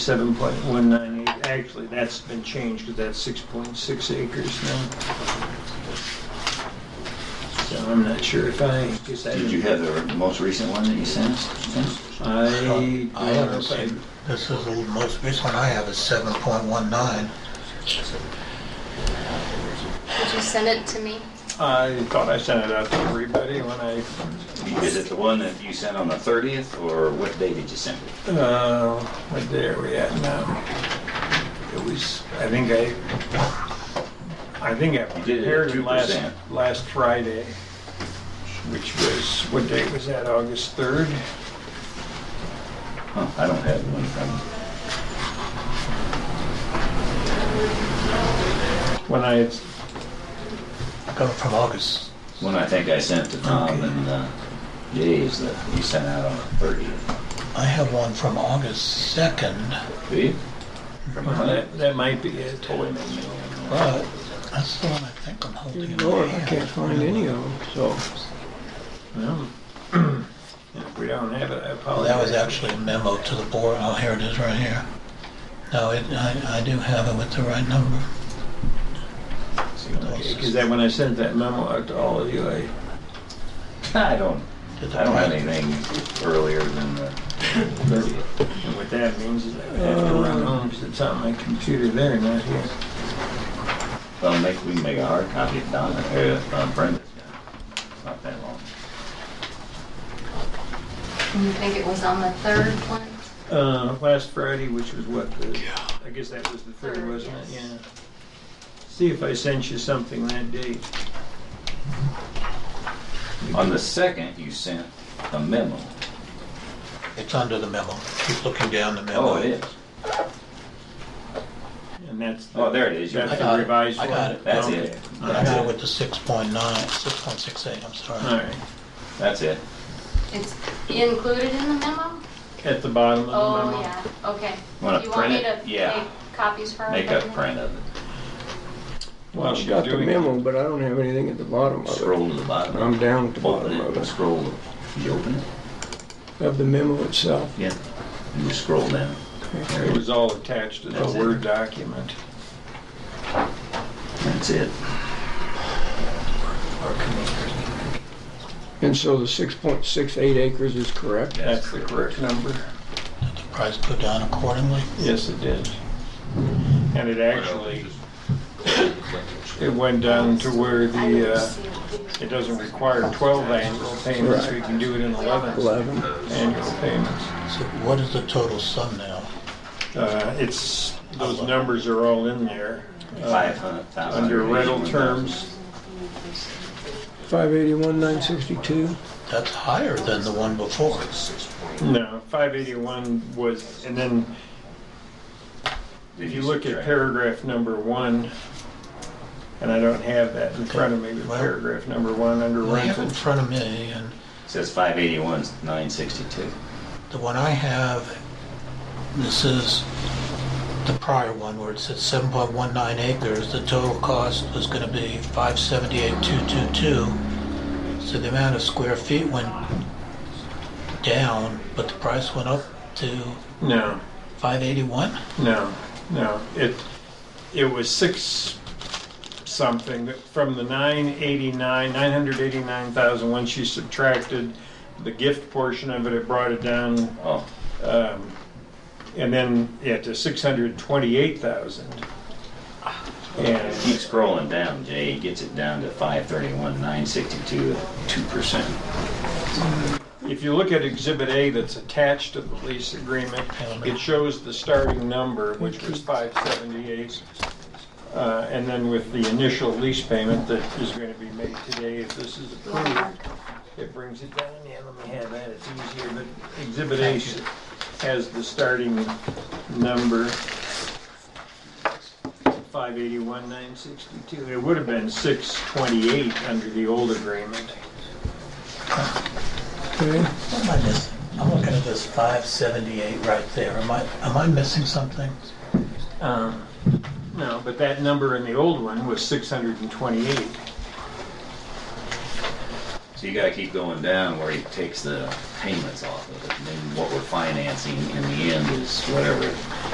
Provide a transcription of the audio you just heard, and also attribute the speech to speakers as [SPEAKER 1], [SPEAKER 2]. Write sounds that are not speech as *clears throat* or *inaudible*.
[SPEAKER 1] Seven point one nine eight, actually, that's been changed, because that's six point six acres now. So I'm not sure if I, guess I.
[SPEAKER 2] Did you have the most recent one that you sent us? sent us?
[SPEAKER 1] I,
[SPEAKER 3] I
[SPEAKER 1] I
[SPEAKER 3] haven't
[SPEAKER 1] don't know
[SPEAKER 3] seen,
[SPEAKER 1] if
[SPEAKER 3] this is the most recent one I have is seven point one nine.
[SPEAKER 4] Did you send it to me?
[SPEAKER 1] I, I thought I sent it out to everybody when I,
[SPEAKER 2] Is it the one that you sent on the 30th, or what day did you send it?
[SPEAKER 1] uh, what day are we at now? uh, It was, I think I, I think I
[SPEAKER 2] You did it at
[SPEAKER 1] prepared it last,
[SPEAKER 2] 2%.
[SPEAKER 1] last Friday, which was, what date was that, August third?
[SPEAKER 2] Huh, I don't have one from,
[SPEAKER 1] When I had
[SPEAKER 3] Coming from August.
[SPEAKER 2] one I think I sent to Tom and uh, Jay's that you sent out on the 30th.
[SPEAKER 3] I have one from August second,
[SPEAKER 2] Do you? From
[SPEAKER 1] Well,
[SPEAKER 2] Clint?
[SPEAKER 1] that, that might be it.
[SPEAKER 2] Oh, wait a minute.
[SPEAKER 3] but that's the one I think I'm holding. in my
[SPEAKER 1] Lord, Oh, I
[SPEAKER 3] hand.
[SPEAKER 1] can't find any of them, so. Well, *clears throat* If we don't have it, I
[SPEAKER 3] Well,
[SPEAKER 1] apologize.
[SPEAKER 3] that was actually a memo to the board. Oh, here it is right here. No, it, I, I do have it with the right number.
[SPEAKER 1] Because that, when I sent that memo out to all of you, I,
[SPEAKER 2] *laughs* I don't,
[SPEAKER 3] Did the
[SPEAKER 2] I don't have
[SPEAKER 3] print-
[SPEAKER 2] anything earlier than the 30th.
[SPEAKER 1] and what that means is I have to run home because it's on my computer there, not here.
[SPEAKER 2] Well, make, we can make a hard copy of Don, or uh, Brenda's got it. It's not that long.
[SPEAKER 4] You think it was on the third one?
[SPEAKER 1] Uh, last Friday, which was what, the, I guess that was the third,
[SPEAKER 4] Third,
[SPEAKER 1] wasn't it?
[SPEAKER 4] yes.
[SPEAKER 1] Yeah. See if I sent you something that day.
[SPEAKER 2] On the 2nd, you sent a memo.
[SPEAKER 3] It's under the memo. Keep looking down the memo.
[SPEAKER 2] Oh, it is.
[SPEAKER 1] And that's. the-
[SPEAKER 2] Oh, there it is. You
[SPEAKER 1] That's
[SPEAKER 3] I
[SPEAKER 2] got it.
[SPEAKER 1] the
[SPEAKER 3] got it.
[SPEAKER 1] revised
[SPEAKER 3] I
[SPEAKER 1] one.
[SPEAKER 3] got it.
[SPEAKER 2] That's
[SPEAKER 1] Okay.
[SPEAKER 2] it.
[SPEAKER 3] I got it with the six point nine, six point six eight, I'm sorry.
[SPEAKER 1] All right.
[SPEAKER 2] That's it.
[SPEAKER 4] It's included in the memo?
[SPEAKER 1] At the bottom of the memo.
[SPEAKER 4] Oh, yeah, okay.
[SPEAKER 2] Wanna
[SPEAKER 4] Do you want
[SPEAKER 2] print
[SPEAKER 4] me
[SPEAKER 2] it?
[SPEAKER 4] to
[SPEAKER 2] Yeah.
[SPEAKER 4] make copies for
[SPEAKER 2] Make a
[SPEAKER 4] everybody?
[SPEAKER 2] print of it.
[SPEAKER 1] While
[SPEAKER 5] I've
[SPEAKER 1] she's
[SPEAKER 5] got the
[SPEAKER 1] doing it.
[SPEAKER 5] memo, but I don't have anything at the bottom of it.
[SPEAKER 2] Scroll to the bottom.
[SPEAKER 5] I'm down at the
[SPEAKER 2] Open
[SPEAKER 5] bottom of
[SPEAKER 2] it.
[SPEAKER 5] it,
[SPEAKER 2] Scroll. You open it?
[SPEAKER 5] of the memo itself.
[SPEAKER 2] Yeah. You scroll down. There
[SPEAKER 1] It
[SPEAKER 2] it is.
[SPEAKER 1] was all attached to the
[SPEAKER 2] That's it.
[SPEAKER 1] Word document.
[SPEAKER 2] That's it.
[SPEAKER 5] And so the 6.68 acres is correct.
[SPEAKER 1] That's the correct number.
[SPEAKER 3] Did the price go down accordingly?
[SPEAKER 1] Yes, it did. And it actually, *coughs* it went down to where
[SPEAKER 4] I didn't
[SPEAKER 1] the, uh,
[SPEAKER 4] see it.
[SPEAKER 1] it doesn't require 12 annual payments, we can do it in 11
[SPEAKER 5] 11.
[SPEAKER 1] annual payments.
[SPEAKER 3] So what is the total sum now?
[SPEAKER 1] Uh, It's, those numbers are all in there. uh,
[SPEAKER 2] Five hundred thousand.
[SPEAKER 1] Under rental terms,
[SPEAKER 5] 581, 962.
[SPEAKER 3] That's higher than the one before.
[SPEAKER 1] no, 581 was, and then If you look at paragraph number one, and I don't have that in front of me, but
[SPEAKER 3] Well-
[SPEAKER 1] paragraph number one under
[SPEAKER 3] I have it in
[SPEAKER 1] rental.
[SPEAKER 3] front of me, and
[SPEAKER 2] Says five eighty-one, nine sixty-two.
[SPEAKER 3] the one I have, this is the prior one where it says 7.19 acres. The total cost was going to be 578,222. So the amount of square feet went down, but the price went up to
[SPEAKER 1] No,
[SPEAKER 3] 581?
[SPEAKER 1] no, no. It, it was six something, that- from the 989, 989,000, once you subtracted the gift portion of it, it brought it down,
[SPEAKER 2] Oh,
[SPEAKER 1] um, and then, yeah, to 628,000. And
[SPEAKER 2] keep scrolling down, Jay. It gets it down to five thirty-one, nine sixty-two, two percent.
[SPEAKER 1] If you look at Exhibit A that's attached to the lease agreement, it shows the starting number, which was 578. uh, And then with the initial lease payment that is going to be made today, if this is approved, it brings it down. Yeah, let me have that, it's easier, but Exhibit A s- has the starting number, 581,962. It would have been 628 under the old agreement.
[SPEAKER 5] Okay.
[SPEAKER 3] What am I missing? I'm looking at this 578 right there. Am I, am I missing something?
[SPEAKER 1] Um, No, but that number in the old one was 628.
[SPEAKER 2] So you gotta keep going down where he takes the payments off of it. And then what we're financing in the end is whatever